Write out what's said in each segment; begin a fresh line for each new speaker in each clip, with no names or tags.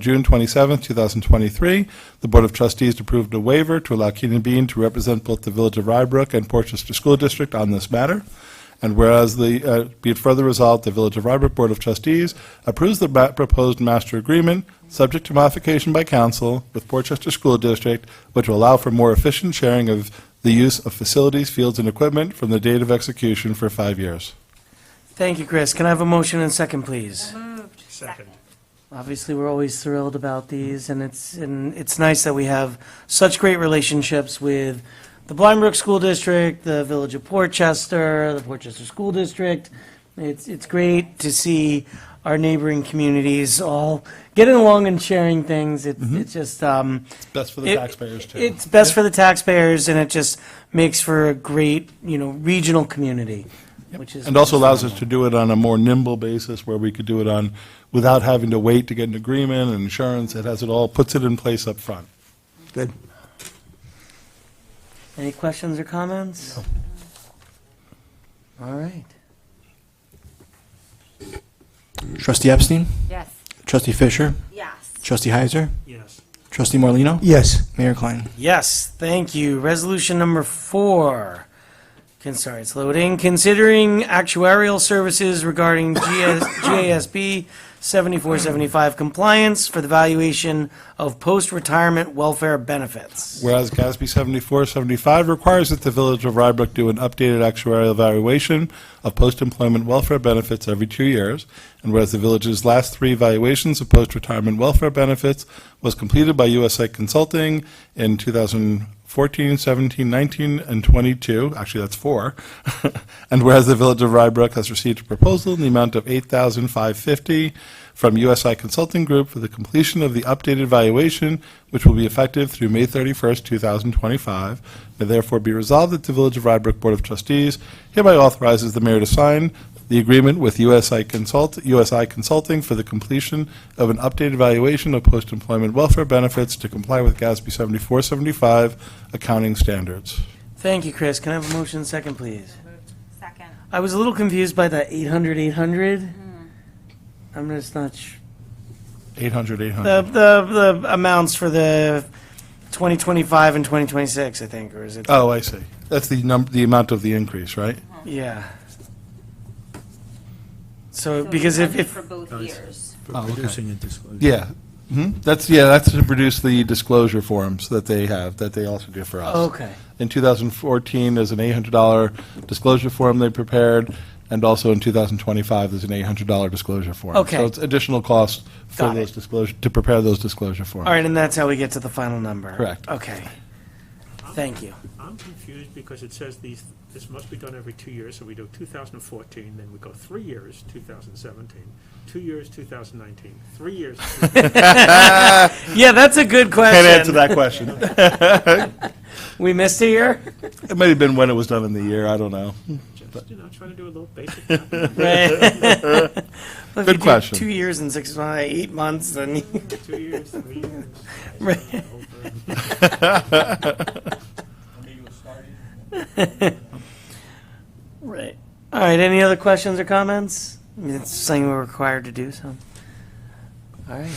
June 27, 2023, the Board of Trustees approved a waiver to allow Keenan Bean to represent both the Village of Rybrook and Portchester School District on this matter. And whereas the, uh, be it further resolved, the Village of Rybrook Board of Trustees approves the ma- proposed master agreement, subject to modification by council with Portchester School District, which will allow for more efficient sharing of the use of facilities, fields, and equipment from the date of execution for five years.
Thank you, Chris. Can I have a motion and second, please?
Second.
Obviously, we're always thrilled about these, and it's, and it's nice that we have such great relationships with the Blind Brook School District, the Village of Portchester, the Portchester School District. It's, it's great to see our neighboring communities all getting along and sharing things. It's, it's just, um,
Best Mm-hmm. for the
It-
taxpayers, too.
It's best for the taxpayers, and it just makes for a great, you know, regional community, which is.
And also allows us to do it on a more nimble basis where we could do it on, without having to wait to get an agreement and insurance. It has it all, puts it in place up front.
Good.
Any questions or comments? All right.
Trustee Epstein?
Yes.
Trustee Fisher?
Yes.
Trustee Heiser?
Yes.
Trustee Morlino,
Yes.
Mayor Klein?
Yes, thank you. Resolution number four. Can, sorry, it's loading. Considering actuarial services regarding GS, GASB 7475 compliance for the valuation of post-retirement welfare benefits.
Whereas GASB 7475 requires that the Village of Rybrook do an updated actuarial valuation of post-employment welfare benefits every two years, and whereas the village's last three valuations of post-retirement welfare benefits was completed by USA Consulting in 2014, 17, 19, and 22, actually, that's four, and whereas the Village of Rybrook has received a proposal in the amount of 8550 from USI Consulting Group for the completion of the updated valuation, which will be effective through May 31st, 2025. May therefore be resolved that the Village of Rybrook Board of Trustees hereby authorizes the mayor to sign the agreement with USI Consult, USI Consulting for the completion of an updated valuation of post-employment welfare benefits to comply with GASB 7475 accounting standards.
Thank you, Chris. Can I have a motion second, please?
Second.
I was a little confused by the 800, 800. I'm just not sure.
800, 800.
The, the, the amounts for the 2025 and 2026, I think, or is it?
Oh, I see. That's the num, the amount of the increase, right?
Yeah. So, because if, if,
For both years.
Oh, okay.
Producing and disclosing.
Yeah. hmm That's, yeah, that's to produce the disclosure forms that they have, that they also do for us.
okay,
In 2014, there's an $800 disclosure form they prepared, and also in 2025, there's an $800 disclosure form.
Okay.
So it's additional cost for
Got
those
it.
disclosure, to prepare those disclosure forms.
all right, and that's how we get to the final number?
Correct.
Okay. Thank you.
I'm confused because it says these, this must be done every two years, so we do 2014, then we go three years, 2017, two years, 2019, three years.
Yeah, that's a good
Can't answer
question.
that question.
We missed a year?
It might have been when it was done in the year, I don't know.
Just, you know, trying to do a little basic. math.
Right. Well, if you
Good
do
question.
Two years and six, months, eight months, then, you-
Two years, three years.
Right.
Over.
right. All right, any other questions or comments? I mean, It's something we're required to do, so. All right.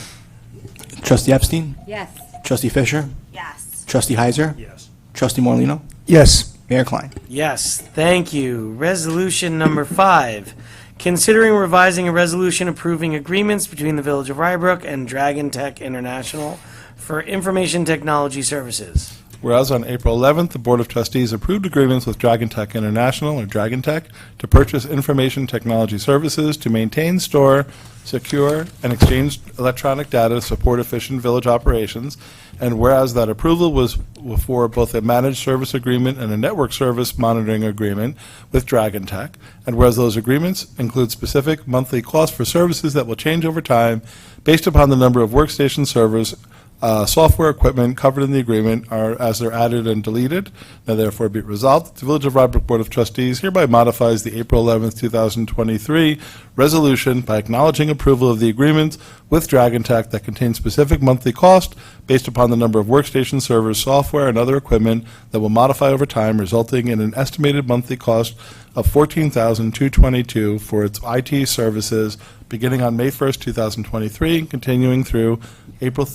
Trustee Epstein?
Yes.
Trustee Fisher?
Yes.
Trustee Heiser?
Yes.
Trustee Morlino,
Yes.
Mayor Klein?
Yes, thank you. Resolution number five, considering revising a resolution approving agreements between the Village of Rybrook and Dragon Tech International for information technology services.
Whereas on April 11th, the Board of Trustees approved agreements with Dragon Tech International, or Dragon Tech, to purchase information technology services to maintain, store, secure, and exchange electronic data to support efficient village operations. And whereas that approval was for both a managed service agreement and a network service monitoring agreement with Dragon Tech. And whereas those agreements include specific monthly costs for services that will change over time based upon the number of workstation servers uh, software equipment covered in the agreement are as they're added and deleted. Now therefore be it resolved, that the Village of Rybrook Board of Trustees hereby modifies the April 11th, 2023 resolution by acknowledging approval of the agreements with Dragon Tech that contain specific monthly cost based upon the number of workstation servers, software, and other equipment that will modify over time, resulting in an estimated monthly cost of $14,222 for its IT services beginning on May 1st, 2023, and continuing through April